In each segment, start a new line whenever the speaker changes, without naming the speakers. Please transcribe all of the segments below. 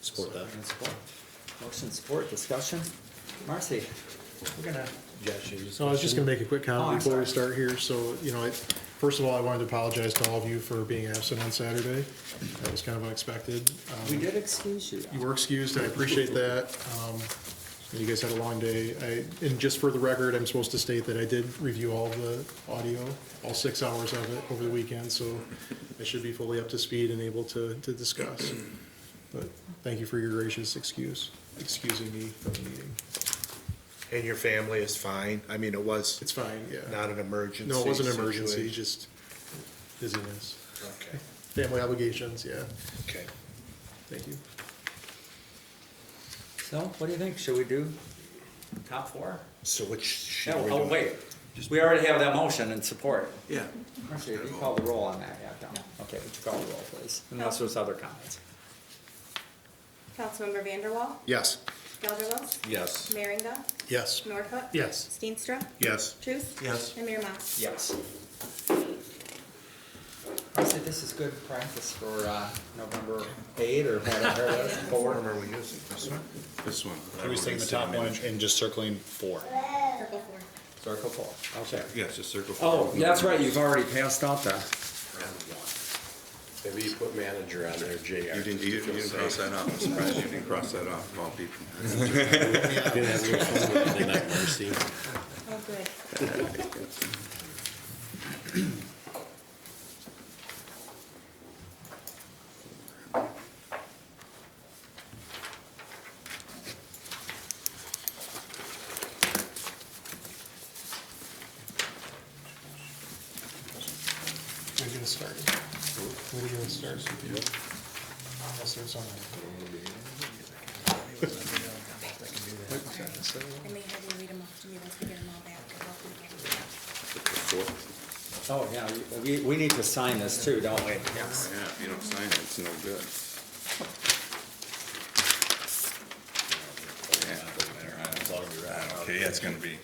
Support that.
And support. Motion support, discussion. Marcy? We're gonna.
Josh, you just.
So I was just gonna make a quick
Oh, I'm
comment before we
sorry.
start here. So, you know, I, first of all, I wanted to apologize to all of you for being absent on Saturday. That was kind of unexpected. Um,
We did excuse you.
You were excused, and I appreciate that. Um, You guys had a long day. I, and just for the record, I'm supposed to state that I did review all the audio, all six hours of it over the weekend, so I should be fully up to speed and able to, to discuss. But thank you for your gracious excuse, excusing me from the meeting.
And your family is fine? I mean, it was
It's fine, yeah.
not an emergency.
No, it wasn't an emergency,
situation.
just busyness.
Okay,
Family obligations, yeah.
okay.
Thank you.
So, what do you think? Should we do top four?
So which sheet are
No,
we
oh,
doing?
wait. We already have that motion and support.
Yeah.
Marcy, if you call the roll on that, yeah, don't. Okay, would you call the roll, please? Unless there's other comments.
Councilmember Vanderwall,
Yes.
Gelderlos,
Yes.
Merringa,
Yes.
Norhuck.
Yes.
Steenstra,
Yes.
Truce.
Yes.
And Mayor Mas.
Yes. Marcy, this is good practice for, uh, November eight or whatever it is,
What
four.
number are we using? This one?
This one.
I
I
was
was taking the top one and just circling four.
Circle four.
Circle four, okay.
Yes, just circle
Oh, that's right, you've already passed out that.
Maybe you put manager on there, JR.
You didn't, you didn't you didn't cross that off. I'm surprised you didn't cross that off of all people.
Oh, good.
We're gonna start. We're gonna start. Unless there's something.
I may have you read them off to me once we get them all back. I'll help you.
Oh, yeah, we, we need to sign this too, don't we? Yes.
Yeah, if you don't sign it, it's no good. Okay, yeah, it's gonna be.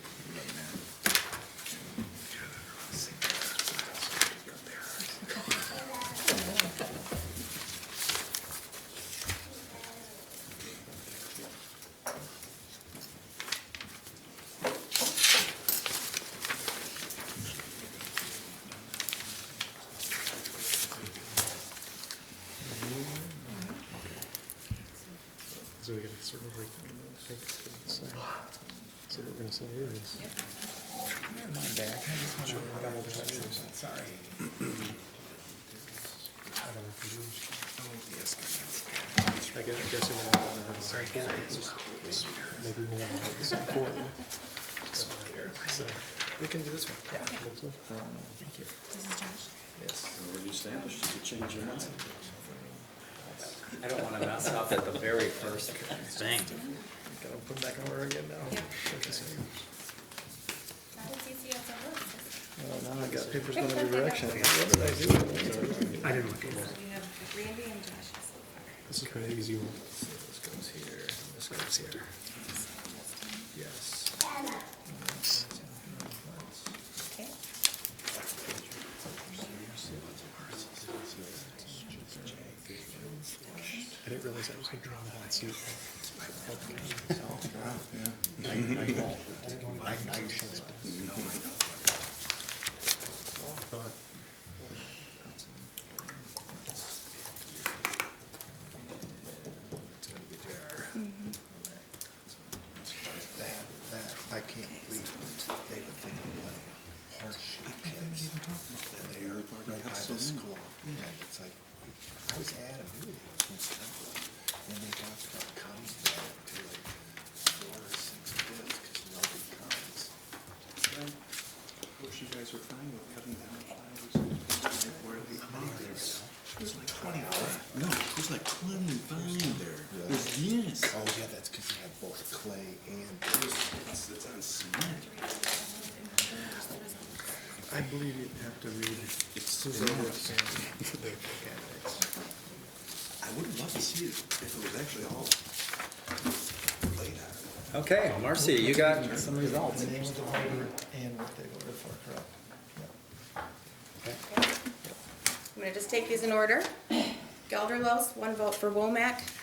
So we gotta circle right there. So we're gonna say it is.
Sorry.
I guess, I'm guessing. we're not gonna have the same form. Maybe we won't have the same form. So, We can do this one. Yeah.
This is Josh.
I don't wanna mess up at the very first thing.
Gotta put it back in order again now.
Yeah.
Well,
Not as easy as it looks.
now I got papers
going every direction. What
did I do? I didn't look at
So you have Randy and Josh so far.
This is kind of easy one.
This goes here, this goes here. Yes.
Okay.
I didn't realize I was gonna draw that suit.
I can't believe they would think of what hardship kids, that they are right by the school. And it's like, I was at a meeting in Temple, and they talked about comes back to like four or six kids, because nobody comes. Wish you guys were fine with cutting down flowers. Where the others. There's like twenty-five. No, there's like twenty-five there. Yes. Oh, yeah, that's because you have both clay and. It's on cement.
I believe you'd have to read it. It's
I would love to see it if it was actually all laid out.
Okay, Marcy, you got some results.
The names of the voter and what they voted for, correct?
I'm gonna just take these in order. Gelderlos, one vote for Womack.